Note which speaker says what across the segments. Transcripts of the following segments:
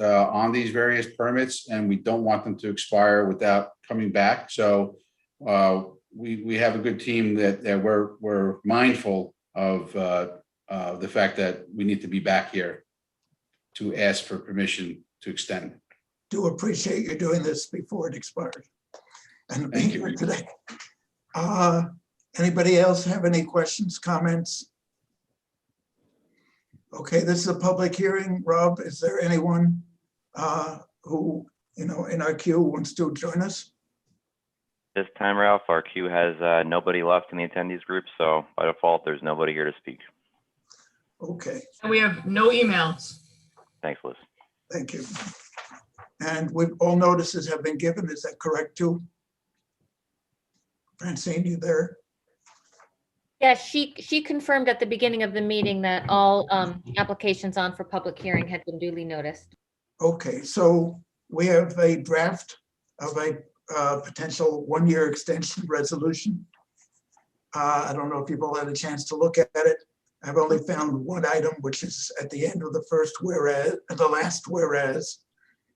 Speaker 1: uh, on these various permits, and we don't want them to expire without coming back. So uh, we, we have a good team that, that we're, we're mindful of uh, uh, the fact that we need to be back here to ask for permission to extend.
Speaker 2: do appreciate you doing this before it expires. And
Speaker 1: Mm-hmm.
Speaker 2: being
Speaker 1: Thank you.
Speaker 2: here today. Uh, Anybody else have any questions, comments? Okay, this is a public hearing. Rob, is there anyone uh, who, you know, in our queue wants to join us?
Speaker 3: This time, Ralph, our queue has uh, nobody left in the attendees group, so by default, there's nobody here to speak.
Speaker 2: Okay,
Speaker 4: And we have no emails.
Speaker 3: Thanks, Liz.
Speaker 2: thank you. And we've, all notices have been given. Is that correct too? Francine, you there?
Speaker 5: Yes, she, she confirmed at the beginning of the meeting that all um, applications on for public hearing had been duly noticed.
Speaker 2: Okay, so we have a draft of a uh, potential one-year extension resolution. Uh, I don't know if you've all had a chance to look at it. I've only found one item, which is at the end of the first whereas, the last whereas.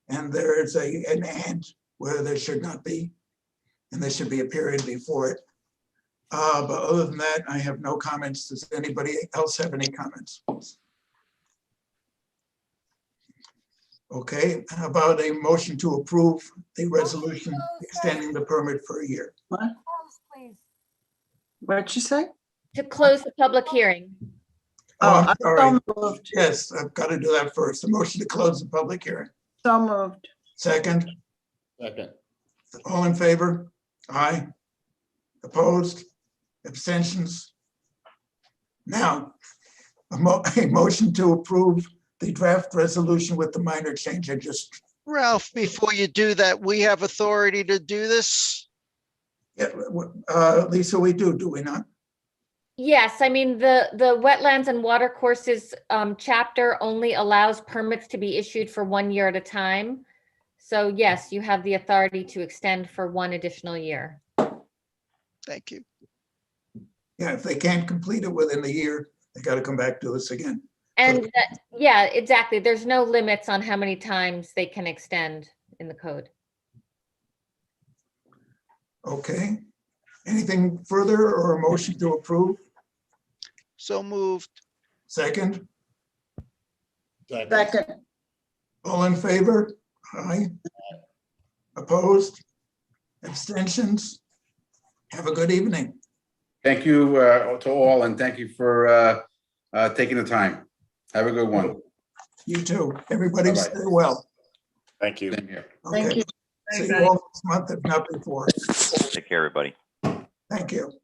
Speaker 2: And there is a, an and where there should not be. And there should be a period before it. Uh, But other than that, I have no comments. Does anybody else have any comments? Okay, how about a motion to approve the resolution extending the permit for a year?
Speaker 6: What'd you say?
Speaker 5: To close the public hearing,
Speaker 2: Oh,
Speaker 6: I
Speaker 2: I'm sorry.
Speaker 6: So moved,
Speaker 2: Yes, I've got to do that first. A motion to close the public hearing.
Speaker 6: so moved.
Speaker 2: Second,
Speaker 1: Second.
Speaker 2: all in favor? Aye. Opposed? Abstentions? Now, a mo- a motion to approve the draft resolution with the minor change I just,
Speaker 7: Ralph, before you do that, we have authority to do this?
Speaker 2: yeah, w- uh, Lisa, we do, do we not?
Speaker 5: yes, I mean, the, the wetlands and water courses um, chapter only allows permits to be issued for one year at a time. So yes, you have the authority to extend for one additional year.
Speaker 7: Thank you.
Speaker 2: Yeah, if they can't complete it within the year, they got to come back to us again.
Speaker 5: And that- yeah, exactly. There's no limits on how many times they can extend in the code.
Speaker 2: Okay? Anything further or a motion to approve?
Speaker 7: So moved.
Speaker 2: Second,
Speaker 6: Second,
Speaker 2: all in favor? Aye. Opposed? Abstentions? Have a good evening.
Speaker 1: Thank you uh, to all, and thank you for uh, uh, taking the time. Have a good one.
Speaker 2: You too. Everybody
Speaker 1: Bye-bye.
Speaker 2: stay well.
Speaker 8: Thank you.
Speaker 1: Same here.
Speaker 6: thank
Speaker 2: Okay.
Speaker 6: you.
Speaker 2: See you all this month, if not before.
Speaker 3: Take care, everybody.
Speaker 2: Thank you.